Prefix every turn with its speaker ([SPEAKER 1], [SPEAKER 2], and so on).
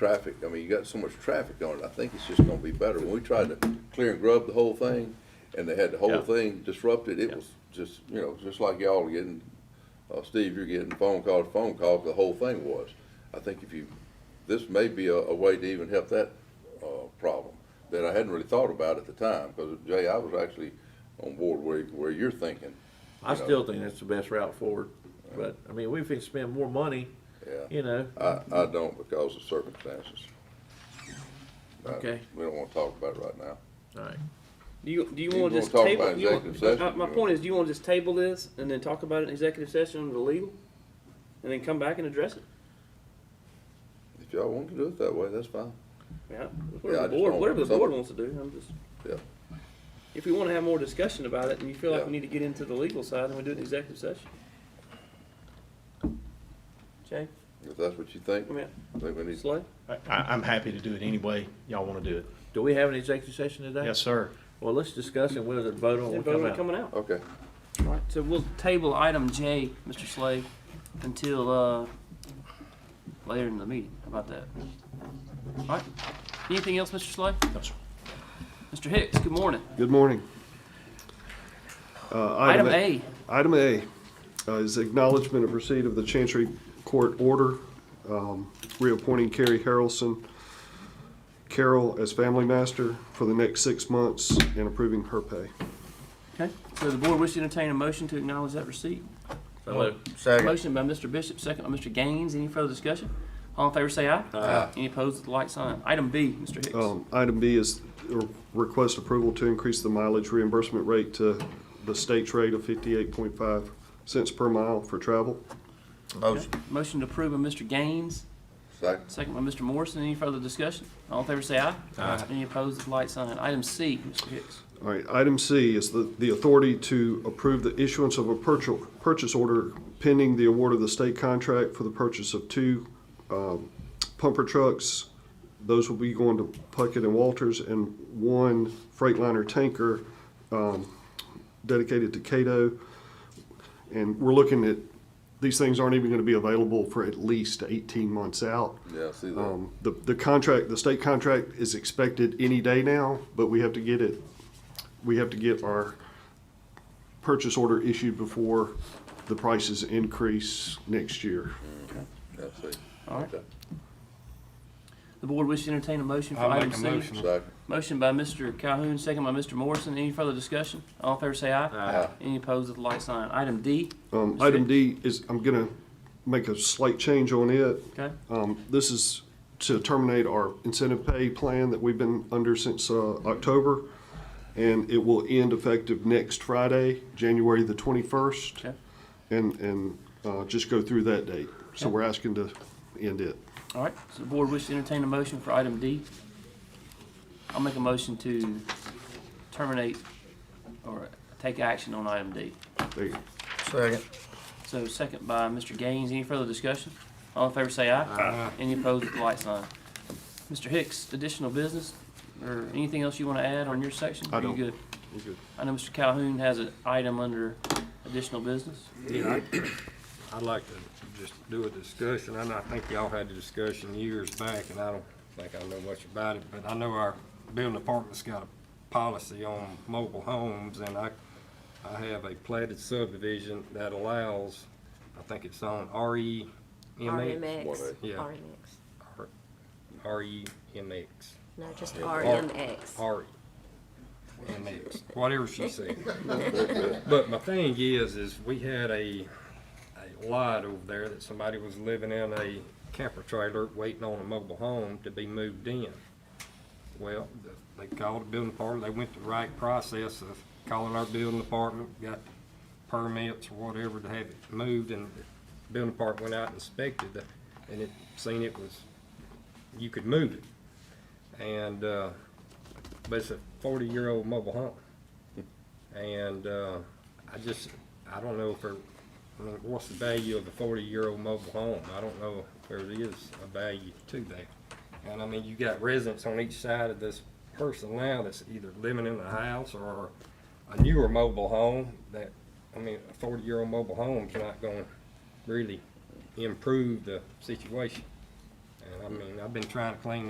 [SPEAKER 1] traffic, I mean, you got so much traffic on it, I think it's just gonna be better. When we tried to clear and grub the whole thing, and they had the
[SPEAKER 2] Yeah.
[SPEAKER 1] whole thing disrupted, it
[SPEAKER 2] Yeah.
[SPEAKER 1] was just, you know, just like y'all getting, uh, Steve, you're getting phone call to phone call, the whole thing was. I think if you, this may be a, a way to even help that, uh, problem, that I hadn't really thought about at the time, because Jay, I was actually on board where, where you're thinking.
[SPEAKER 2] I
[SPEAKER 1] you know.
[SPEAKER 2] still think that's the best route forward, but, I mean, we can spend more money,
[SPEAKER 1] Yeah.
[SPEAKER 2] you know,
[SPEAKER 1] I, I don't because of circumstances. I-
[SPEAKER 2] Okay.
[SPEAKER 1] We don't wanna talk about it right now.
[SPEAKER 2] all right.
[SPEAKER 3] Do you, do
[SPEAKER 1] You
[SPEAKER 3] you want
[SPEAKER 1] wanna
[SPEAKER 3] to just
[SPEAKER 1] talk
[SPEAKER 3] table?
[SPEAKER 1] about
[SPEAKER 3] you want-
[SPEAKER 1] executive
[SPEAKER 3] my-
[SPEAKER 1] session,
[SPEAKER 3] My
[SPEAKER 1] you
[SPEAKER 3] point
[SPEAKER 1] know?
[SPEAKER 3] is, do you want to just table this and then talk about it in executive session under legal? And then come back and address it?
[SPEAKER 1] If y'all want to do it that way, that's fine.
[SPEAKER 3] Yeah,
[SPEAKER 1] Yeah, I
[SPEAKER 3] whatever
[SPEAKER 1] just
[SPEAKER 3] the board,
[SPEAKER 1] don't-
[SPEAKER 3] whatever the
[SPEAKER 1] some-
[SPEAKER 3] board wants to do, I'm just,
[SPEAKER 1] Yeah.
[SPEAKER 3] if we want to have more discussion about it and you feel like
[SPEAKER 1] Yeah.
[SPEAKER 3] we need to get into the legal side, then we do it in executive session. Jay,
[SPEAKER 1] If that's what you think,
[SPEAKER 3] I mean,
[SPEAKER 1] I think we need,
[SPEAKER 3] Slay?
[SPEAKER 4] I, I'm happy to do it any way y'all want to do it.
[SPEAKER 2] Do we have an executive session today?
[SPEAKER 4] Yes, sir.
[SPEAKER 2] Well, let's discuss it, we'll vote on
[SPEAKER 3] Then
[SPEAKER 2] it,
[SPEAKER 3] vote on it
[SPEAKER 2] come Oh, out.
[SPEAKER 3] coming out.
[SPEAKER 1] okay.
[SPEAKER 3] All right, so we'll table item J, Mr. Slay, until, uh, later in the meeting. How about that? All right, anything else, Mr. Slay?
[SPEAKER 4] No, sir.
[SPEAKER 3] Mr. Hicks, good morning.
[SPEAKER 5] Good morning. Uh,
[SPEAKER 3] Item A,
[SPEAKER 5] Item A uh, is acknowledgement of receipt of the Chancery Court order um, reappointing Carrie Harrelson Carroll as family master for the next six months and approving her pay.
[SPEAKER 3] okay, so the board wishes to entertain a motion to acknowledge that receipt. Motion by Mr. Bishop, second by Mr. Gaines. Any further discussion? All in favor say aye. Aye. Oh. Any opposed with the light sign. Item B, Mr. Hicks.
[SPEAKER 5] Um, Item B is a request approval to increase the mileage reimbursement rate to the state's rate of 58.5 cents per mile for travel.
[SPEAKER 3] Okay. Motion to approve by Mr. Gaines,
[SPEAKER 1] Second,
[SPEAKER 3] second by Mr. Morrison. Any further discussion? All in favor say aye. Aye. Any opposed with the light sign. Item C, Mr. Hicks.
[SPEAKER 5] All right, item C is the, the authority to approve the issuance of a purchase, purchase order pending the award of the state contract for the purchase of two um, pumper trucks. Those will be going to Puckett and Walters and one Freightliner tanker um, dedicated to Cato. And we're looking at, these things aren't even going to be available for at least 18 months out.
[SPEAKER 1] yeah, I see that.
[SPEAKER 5] Um, The, the contract, the state contract is expected any day now, but we have to get it, we have to get our purchase order issued before the prices increase next year.
[SPEAKER 1] I see.
[SPEAKER 3] All right.
[SPEAKER 1] Okay.
[SPEAKER 3] The board wishes to entertain a motion for
[SPEAKER 6] I'll
[SPEAKER 3] item
[SPEAKER 6] make a
[SPEAKER 3] C.
[SPEAKER 6] motion.
[SPEAKER 1] Second,
[SPEAKER 3] Motion by Mr. Calhoun, second by Mr. Morrison. Any further discussion? All in favor say aye.
[SPEAKER 1] Aye.
[SPEAKER 3] Any opposed with the light sign. Item D,
[SPEAKER 5] Um, Item D is, I'm gonna make a slight change on it.
[SPEAKER 3] okay?
[SPEAKER 5] Um, This is to terminate our incentive pay plan that we've been under since uh, October, and it will end effective next Friday, January the 21st.
[SPEAKER 3] Okay.
[SPEAKER 5] And, and uh, just go through that date. So
[SPEAKER 3] Okay.
[SPEAKER 5] we're asking to end it.
[SPEAKER 3] All right, so the board wishes to entertain a motion for item D. I'll make a motion to terminate or take action on item D.
[SPEAKER 5] There you go.
[SPEAKER 6] Second.
[SPEAKER 3] So second by Mr. Gaines, any further discussion? All in favor say aye. Aye. Any opposed with the light sign. Mr. Hicks, additional business or anything else you want to add on your section?
[SPEAKER 5] I
[SPEAKER 3] Are you
[SPEAKER 5] don't.
[SPEAKER 3] good?
[SPEAKER 5] We're good.
[SPEAKER 3] I know Mr. Calhoun has an item under additional business.
[SPEAKER 6] Yeah, I- I'd like to just do a discussion, and I think y'all had the discussion years back, and I don't think I know much about it, but I know our building department's got a policy on mobile homes, and I, I have a platted subdivision that allows, I think it's on E RE.
[SPEAKER 1] What, eh?
[SPEAKER 7] RMX,
[SPEAKER 6] Yeah.
[SPEAKER 7] RMX,
[SPEAKER 6] E REMX,
[SPEAKER 7] no, just RMX.
[SPEAKER 6] RE, MX, whatever she said. But my thing is, is we had a, a lot over there that somebody was living in a camper trailer waiting on a mobile home to be moved in. Well, the- they called the building department, they went the right process of calling our building department, got permits or whatever to have it moved, and the building department went out and inspected it, and it, seen it was, you could move it. And, uh, but it's a forty-year-old mobile home. And uh, I just, I don't know if there, I mean, what's the value of a forty-year-old mobile home? I don't know if there is a value to that. And I mean, you got residents on each side of this person now that's either living in a house or a newer mobile home that, I mean, a forty-year-old mobile home's not gonna really improve the situation. And I I mean, I've been trying to clean